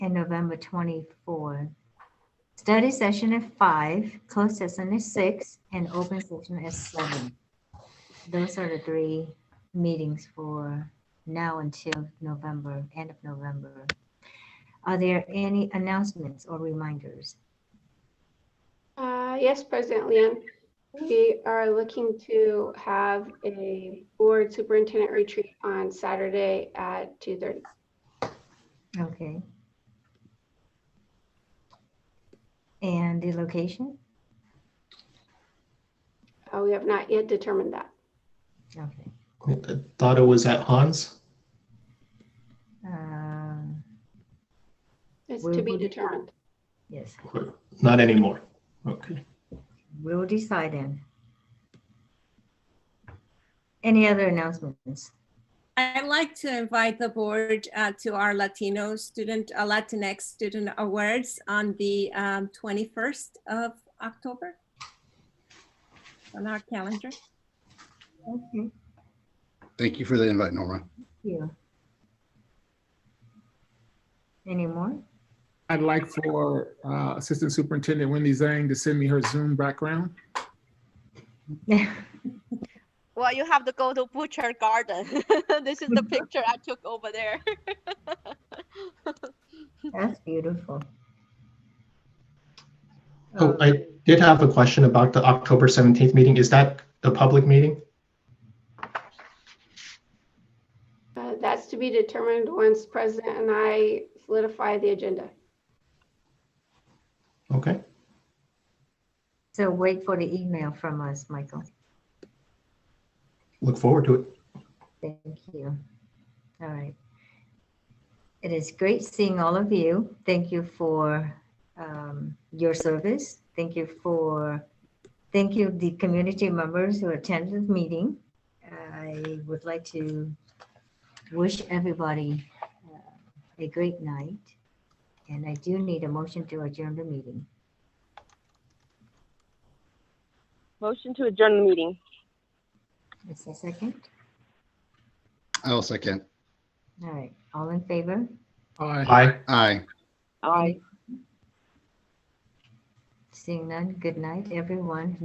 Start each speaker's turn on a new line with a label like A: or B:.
A: and November 24. Study session at five, closed session at six, and open session at seven. Those are the three meetings for now until November, end of November. Are there any announcements or reminders?
B: Uh, Yes, President Liang, we are looking to have a board superintendent retreat on Saturday at 2:30.
A: Okay. And the location?
B: Uh, We have not yet determined that.
A: Okay.
C: I thought it was at Hans.
A: Um,
B: It's
A: Where
B: to be
A: would it
B: determined.
A: Yes,
C: Not anymore. Okay.
A: we'll decide then. Any other announcements?
D: I'd like to invite the board uh, to our Latino student, uh, Latinx student awards on the um, 21st of October on our calendar.
A: Okay,
E: Thank you for the invite, Norma.
A: you. Any more?
F: I'd like for uh, Assistant Superintendent Wendy Zhang to send me her Zoom background.
G: Well, you have to go to Butcher Garden. this is the picture I took over there.
A: That's beautiful.
C: Oh, I did have a question about the October 17th meeting. Is that a public meeting?
B: Uh, That's to be determined once President and I solidify the agenda.
C: Okay.
A: So wait for the email from us, Michael.
C: Look forward to it.
A: Thank you. All right. It is great seeing all of you. Thank you for um, your service. Thank you for, thank you, the community members who attended the meeting. I would like to wish everybody uh, a great night. And I do need a motion to adjourn the meeting.
H: Motion to adjourn the meeting.
A: Is there a second?
E: I'll second.
A: All right, all in favor?
F: Aye.
C: Bye.
E: Aye.
H: Aye.
A: Seeing none, good night, everyone.